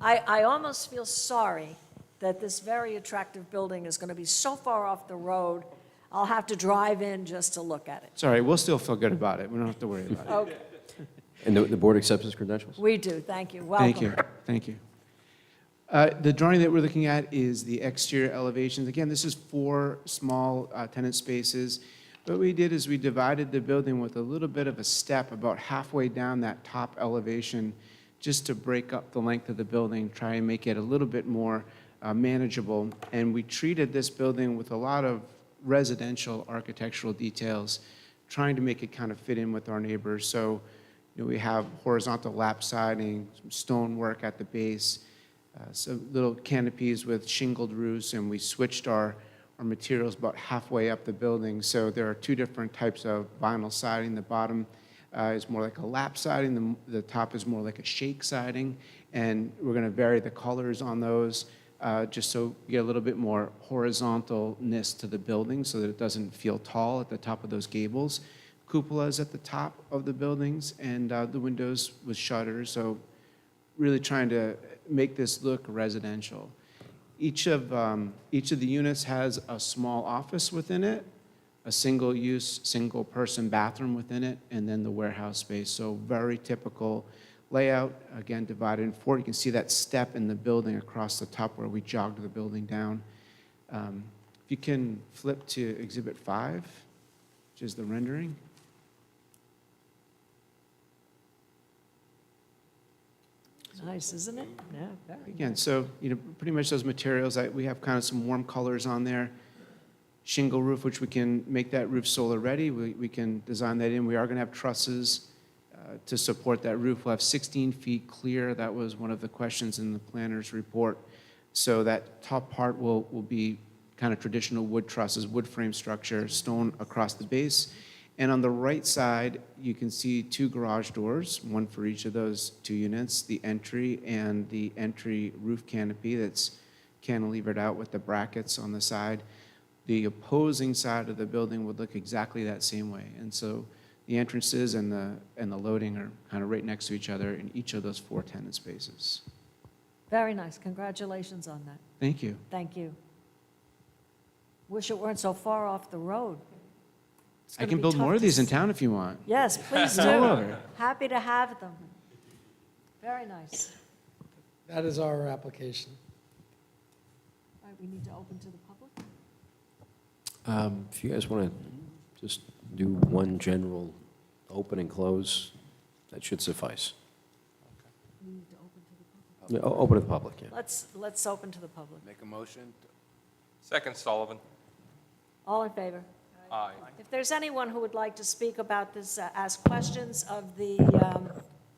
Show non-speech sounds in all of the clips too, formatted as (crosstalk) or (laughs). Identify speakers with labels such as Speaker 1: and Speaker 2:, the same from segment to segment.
Speaker 1: I, I almost feel sorry that this very attractive building is going to be so far off the road, I'll have to drive in just to look at it.
Speaker 2: It's all right, we'll still feel good about it, we don't have to worry about it.
Speaker 1: Okay,
Speaker 3: And the, the board accepts his credentials?
Speaker 1: we do, thank you, welcome.
Speaker 2: Thank you, thank you. Uh, The drawing that we're looking at is the exterior elevations. Again, this is four small uh, tenant spaces. What we did is we divided the building with a little bit of a step about halfway down that top elevation, just to break up the length of the building, try and make it a little bit more uh, manageable. And we treated this building with a lot of residential architectural details, trying to make it kind of fit in with our neighbors. So you know, we have horizontal lap siding, some stonework at the base, uh, some little canopies with shingled roofs, and we switched our, our materials about halfway up the building. So there are two different types of vinyl siding. The bottom uh, is more like a lap siding, the, the top is more like a shake siding, and we're going to vary the colors on those uh, just so you get a little bit more horizontalness to the building so that it doesn't feel tall at the top of those gables cupolas at the top of the buildings and uh, the windows with shutters. So, really trying to make this look residential. Each of um, each of the units has a small office within it, a single-use, single-person bathroom within it, and then the warehouse space. So, very typical layout. Again, divided in four. You can see that step in the building across the top where we jogged the building down. Um, if you can flip to Exhibit Five which is the rendering.
Speaker 1: Nice, isn't it?
Speaker 2: Mm-hmm.
Speaker 1: Yeah, very.
Speaker 2: Again, so, you know, pretty much those materials, I, we have kind of some warm colors on there. Shingle roof, which we can make that roof solar ready, we, we can design that in. We are gonna have trusses uh, to support that roof. We'll have sixteen feet clear, that was one of the questions in the planner's report. So that top part will, will be kind of traditional wood trusses, wood frame structure, stone across the base. And on the right side, you can see two garage doors, one for each of those two units, the entry and the entry roof canopy that's cantilevered out with the brackets on the side. The opposing side of the building would look exactly that same way. And so the entrances and the, and the loading are kind of right next to each other in each of those four tenant spaces.
Speaker 1: Very nice, congratulations on that,
Speaker 2: Thank you.
Speaker 1: thank you. Wish it weren't so far off the road. It's
Speaker 2: I
Speaker 1: gonna
Speaker 2: can
Speaker 1: be
Speaker 2: build
Speaker 1: tough
Speaker 2: more of
Speaker 1: to
Speaker 2: these in
Speaker 1: s-
Speaker 2: town if you want.
Speaker 1: Yes, please
Speaker 2: (laughs) All
Speaker 1: do.
Speaker 2: over.
Speaker 1: Happy to have them. Very nice.
Speaker 4: That is our application.
Speaker 1: All right, we need to open to the public?
Speaker 3: Um, If you guys want to just do one general open and close, that should suffice.
Speaker 1: We need to open to the public.
Speaker 3: Yeah, o- Open to the public, yeah.
Speaker 1: Let's, let's open to the public.
Speaker 5: Make a motion?
Speaker 6: Second Sullivan.
Speaker 1: All in favor?
Speaker 6: Aye.
Speaker 1: If there's anyone who would like to speak about this, uh, ask questions of the um,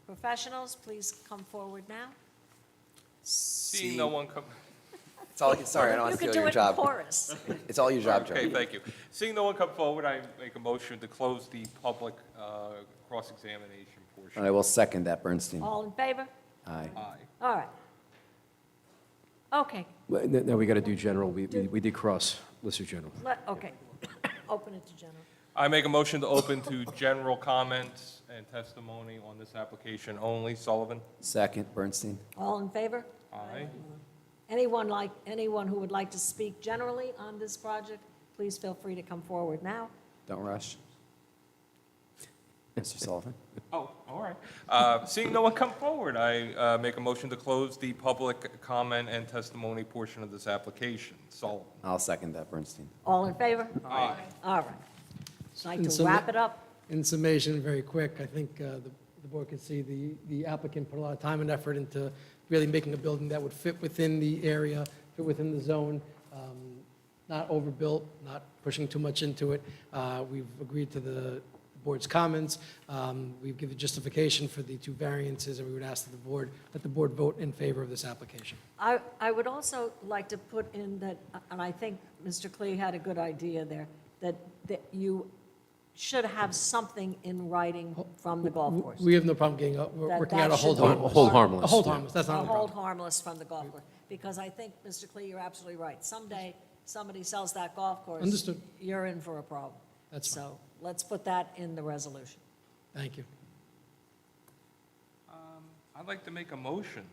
Speaker 1: professionals, please come forward now.
Speaker 6: Seeing no one come,
Speaker 5: It's all, sorry, I don't want to
Speaker 1: You
Speaker 5: steal
Speaker 1: can
Speaker 5: your
Speaker 1: do it in
Speaker 5: job.
Speaker 1: chorus.
Speaker 5: It's all your job, Joe.
Speaker 6: okay, thank you. Seeing no one come forward, I make a motion to close the public uh, cross-examination
Speaker 5: And I
Speaker 6: portion.
Speaker 5: will second that, Bernstein.
Speaker 1: All in favor?
Speaker 5: Aye.
Speaker 6: Aye.
Speaker 1: All right. Okay,
Speaker 3: Well, n- Now, we got to do general, we, we we did cross, let's do general.
Speaker 1: let, okay. Open it to general.
Speaker 6: I make a motion to open to general comments and testimony on this application only. Sullivan?
Speaker 5: Second, Bernstein.
Speaker 1: All in favor?
Speaker 6: Aye.
Speaker 1: Anyone like, anyone who would like to speak generally on this project, please feel free to come forward now.
Speaker 5: Don't rush. Mr. Sullivan?
Speaker 6: Oh, all right. Uh, Seeing no one come forward, I uh, make a motion to close the public comment and testimony portion of this application. Sullivan?
Speaker 5: I'll second that, Bernstein.
Speaker 1: All in favor?
Speaker 6: Aye.
Speaker 1: All right. Like
Speaker 4: And
Speaker 1: to
Speaker 4: so-
Speaker 1: wrap it up?
Speaker 4: In summation, very quick, I think uh, the the board can see the the applicant put a lot of time and effort into really making a building that would fit within the area, fit within the zone, um, not overbuilt, not pushing too much into it. Uh, We've agreed to the board's comments. Um, We've given justification for the two variances, and we would ask that the board, that the board vote in favor of this application.
Speaker 1: I, I would also like to put in that, and I think Mr. Clee had a good idea there, that, that you should have something in writing from the golf course.
Speaker 4: We have no problem getting, a- we're
Speaker 1: That-
Speaker 4: working
Speaker 1: that
Speaker 4: out a hold
Speaker 1: should be-
Speaker 4: harmless.
Speaker 3: A hold harmless,
Speaker 4: A hold
Speaker 3: yeah.
Speaker 4: harmless, that's
Speaker 1: A
Speaker 4: not a
Speaker 1: hold
Speaker 4: problem.
Speaker 1: harmless from the golf course, because I think, Mr. Clee, you're absolutely right. Someday, somebody sells that golf course.
Speaker 4: Understood.
Speaker 1: You're in for a problem.
Speaker 4: That's fine.
Speaker 1: So let's put that in the resolution.
Speaker 4: Thank you.
Speaker 6: I'd like to make a motion